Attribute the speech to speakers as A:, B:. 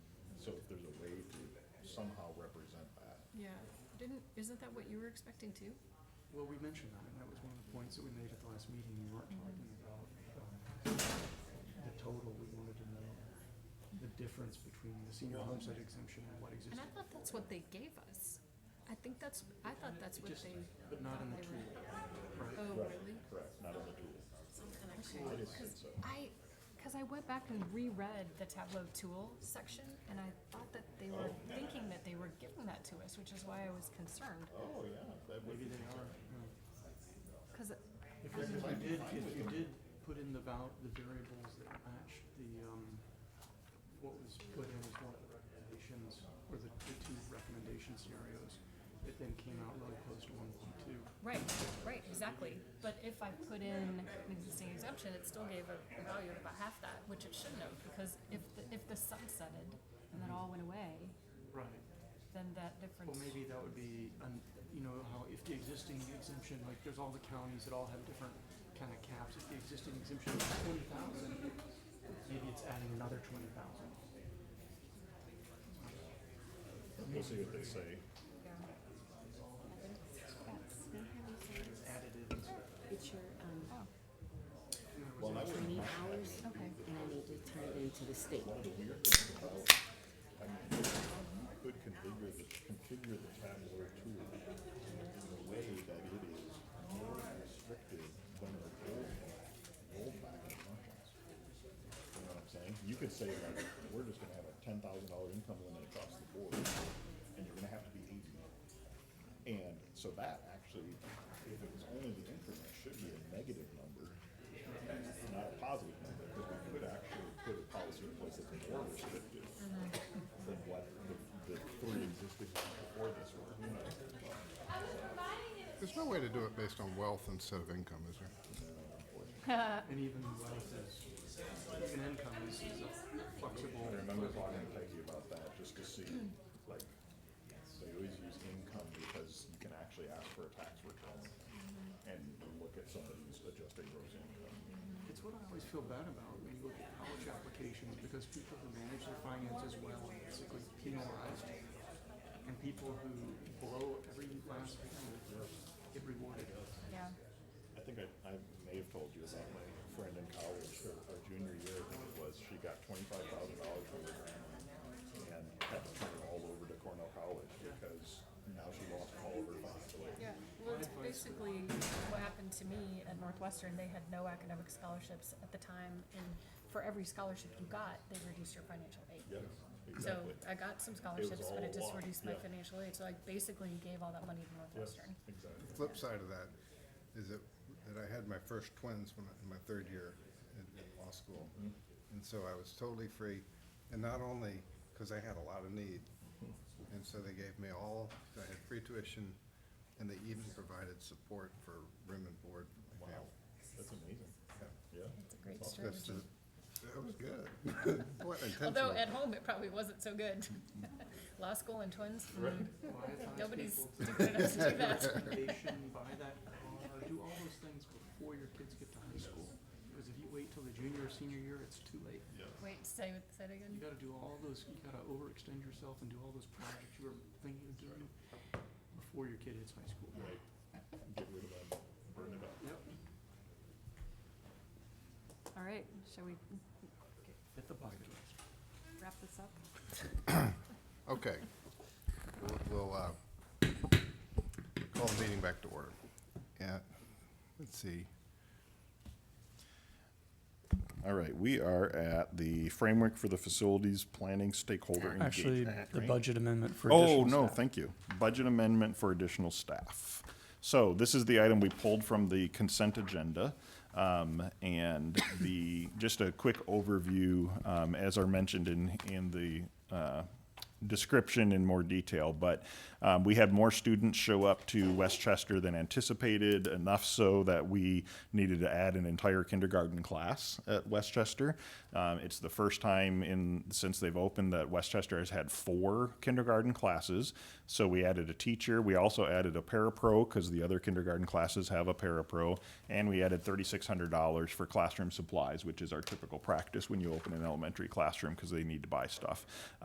A: Didn't, isn't that what you were expecting too?
B: Well, we mentioned that, and that was one of the points that we made at the last meeting. We weren't talking about um, the total. We wanted to know the difference between the senior homestead exemption and what
A: And
B: existed.
A: I thought that's what they gave us. I think that's, I thought that's
B: It
A: what
B: just-
A: they.
B: But not
A: thought
B: in the
A: they were-
B: tool, right?
A: Oh, really?
C: Correct, not in the tool.
A: Okay. Cause I, cause I went back and reread the Tableau tool section and I thought that they were thinking that they were giving that to us, which is why I was concerned.
C: Oh, yeah, that would
B: Maybe
C: be,
B: they are. no.
A: Cause
B: If you if you did, if you did put in the val, the variables that matched the, um, what was put in as one of the recommendations, or the, the two recommendation scenarios, it then came out really close to one point two.
A: Right, right, exactly. But if I put in an existing exemption, it still gave a a value of about half that, which it shouldn't have, because if, the- if the sunsetted and then all went away,
B: Right.
A: then that difference.
B: Well, maybe that would be, un- you know, how if the existing exemption, like there's all the counties that all have different kind of caps. If the existing exemption is twenty thousand, maybe it's adding another twenty thousand.
C: we'll see what they say.
A: Yeah.
B: It's additive.
D: It's your, um,
C: Well, that was
D: training hours, and
A: Oh, Okay,
D: I need to turn it into the state.
C: one of the weird things about, I mean, you could configure the, configure the Tableau tool in a way that it is more restrictive than the old, rollback assumptions. You know what I'm saying? You could say like, we're just gonna have a ten thousand dollar income limit across the board, and you're gonna have to be eighty. And so that actually, if it was only the increment, should be a negative number not a positive number, because we could actually put a policy in place that's more restrictive than what the, the three existing ones before this were, you know.
E: There's no way to do it based on wealth instead of income, is there?
B: And even wealth is, even income is is a flexible.
C: I remember talking to Peggy about that, just to see, like, they always use income because you can actually ask for a tax return and look at somebody's adjusted gross income.
B: It's what I always feel bad about when you look at college applications, because people who manage their finances well are basically penalized. And people who blow every last penny get rewarded.
A: yeah.
C: I think I, I may have told you about my friend in college, her, her junior year, I think it was, she got twenty-five thousand dollars from her grandma and had to turn all over to Cornell College because now she lost all of her financial aid.
A: Yeah, well, it's basically what happened to me at Northwestern. They had no academic scholarships at the time, and for every scholarship you got, they reduced your financial aid.
C: Yes,
A: So
C: exactly.
A: I got some scholarships,
C: all
A: but it just
C: luck,
A: reduced my
C: yeah.
A: financial aid, so I basically gave all that money to
C: Yes,
A: Northwestern.
C: exactly.
E: The flip side of that is that, that I had my first twins when, I- in my third year at, at law school. And so I was totally free, and not only because I had a lot of need, and so they gave me all, I had free tuition, and they even provided support for room and board. for my
C: Wow,
E: family.
C: that's amazing. Yeah.
A: It's a great
C: awesome.
A: strategy.
E: That's the- That was good. What
A: Although
E: intentional.
A: at home, it probably wasn't so good. Law school and twins, mm,
B: Why advise people
A: nobody's
B: to
A: stupid enough to do that.
B: vacation, buy that car, do all those things before your kids get to high school. Because if you wait till the junior or senior year, it's too late.
A: Wait, say, what- say it
B: You
A: again?
B: gotta do all those, you gotta overextend yourself and do all those projects you were thinking of doing before your kid hits high school.
C: Right, get rid of that, burn it up.
B: Yep.
F: All right, shall we
B: Hit the bucket list.
F: wrap this up?
E: Okay. We'll, we'll, uh, call the meeting back to order. Yeah, let's see.
C: All right, we are at the framework for the facilities planning stakeholder
G: Actually, the budget amendment for
C: Oh,
G: additional
C: no,
G: staff.
C: thank you. Budget amendment for additional staff. So this is the item we pulled from the consent agenda. Um, and the, just a quick overview, um, as are mentioned in, in the, uh, description in more detail, but, um, we had more students show up to Westchester than anticipated, enough so that we needed to add an entire kindergarten class at Westchester. Um, it's the first time in, since they've opened that Westchester has had four kindergarten classes. So we added a teacher. We also added a parapro because the other kindergarten classes have a parapro. And we added $3,600 for classroom supplies, which is our typical practice when you open an elementary classroom because they need to buy stuff.